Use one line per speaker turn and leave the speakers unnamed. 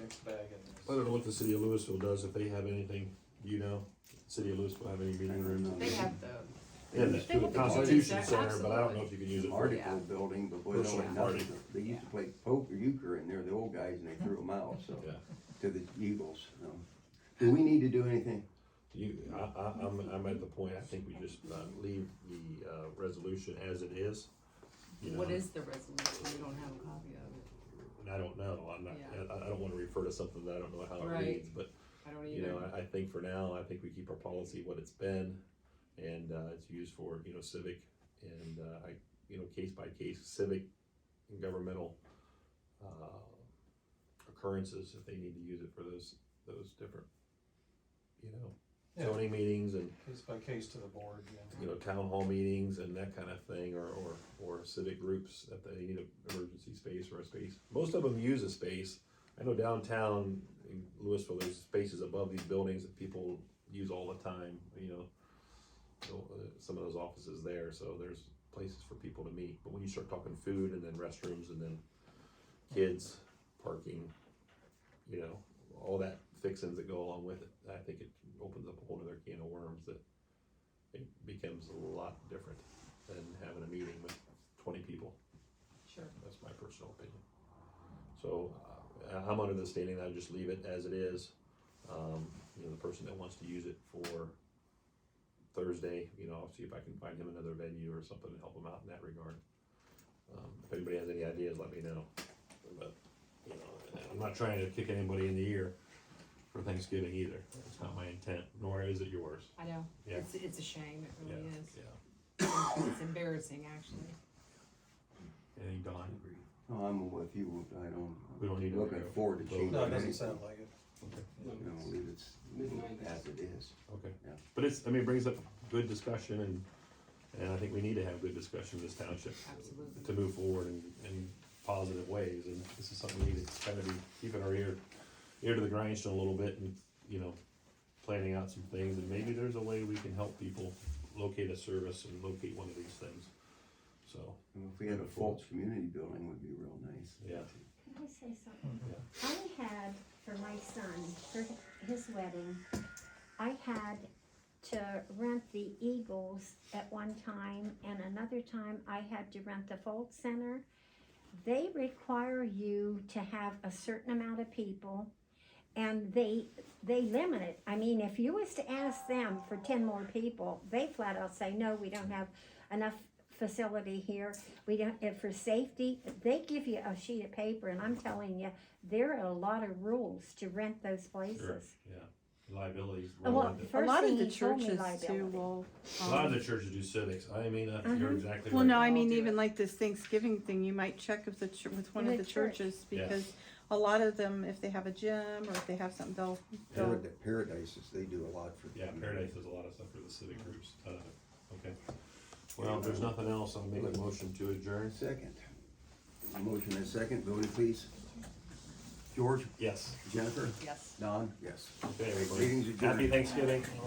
mixed bag
I
in
don't know what the city of Louisville does, if they have anything, you know, city of Louisville have any meeting rooms?
They have the,
They have
they have
the
the
Constitution
Constitution,
Center, but I don't know if you can use it for.
Article building, but boy, they
Personal
only nothing.
party.
They used to play poker euchre in there, the old guys, and they threw them out, so,
Yeah.
to the Eagles, so. Do we need to do anything?
You, I, I, I'm, I'm at the point, I think we just, uh, leave the, uh, resolution as it is. you
what
know.
is the resolution? We don't have a copy of it.
And I don't know, I'm not,
Yeah.
I, I don't wanna refer to something that I don't know how it
Right.
reads, but,
I don't
you know,
either.
I, I think for now, I think we keep our policy what it's been. And, uh, it's used for, you know, civic and, uh, I, you know, case by case civic and governmental, uh, occurrences, if they need to use it for those, those different, you know,
there. Yeah,
zoning meetings and
case by case to the board, yeah.
you know, town hall meetings and that kind of thing, or, or, or civic groups that they need an emergency space or a space. Most of them use a space. I know downtown in Louisville, there's spaces above these buildings that people use all the time, you know. So, uh, Some of those offices there, so there's places for people to meet. But when you start talking food and then restrooms and then kids, parking, you know, all that fixings that go along with it, I think it opens up a whole other can of worms that it becomes a lot different than having a meeting with twenty people.
Sure.
That's my personal opinion. So, uh, I'm under the standing that I just leave it as it is. Um, you know, the person that wants to use it for Thursday, you know, I'll see if I can find him another venue or something to help him out in that regard. Um, if anybody has any ideas, let me know. But, you know, I'm not trying to kick anybody in the ear for Thanksgiving either. It's not my intent, nor is it yours.
I know.
Yeah.
It's, it's a shame. It
Yeah,
really is.
yeah.
It's embarrassing, actually.
Anything, Don?
Oh, I'm with you, I don't.
We don't need to
Looking
go.
forward to
No, it
changing.
No, it
anything.
doesn't sound like it.
No, leave it as it is.
Okay.
Yeah.
But it's, I mean, it brings up good discussion and, and I think we need to have good discussion in this township.
Absolutely.
To move forward in, in positive ways, and this is something we need to kind of be keeping our ear, ear to the grindstone a little bit and, you know, planning out some things, and maybe there's a way we can help people locate a service and locate one of these things. So,
And If we had a false community building, would be real nice.
Yeah.
Can I say something? I had, for my son, for his wedding, I had to rent the Eagles at one time, and another time I had to rent the Fold Center. They require you to have a certain amount of people, and they, they limit it. I mean, if you was to ask them for ten more people, they flat out say, no, we don't have enough facility here. We don't, and for safety, they give you a sheet of paper, and I'm telling you, there are a lot of rules to rent those
sure,
places.
yeah, liabilities.
Uh,
roll
Well,
into-
first
a lot
thing
of the
he told me
churches too
liability.
will.
A lot of
um,
the churches do civics, I mean, that's- you're
Mhm.
exactly right.
well, no, I
They'll
mean
do it.
even like this Thanksgiving thing, you might check if the chur- with one of
With
the
church.
churches
Yeah.
because a lot of them, if they have a gym or if they have something, they'll they'll
Parad- Paradises, they do a lot for.
Yeah,
community.
Paradise does a lot of stuff for the civic groups, uh, okay. Well, if there's nothing else, I'll make a motion to adjourn.
Second. Motion and second, voting please. George,
Yes,
Jennifer,
Yes.
Don? Yes.
okay, everybody.
Meeting's adjourned.
Happy Thanksgiving.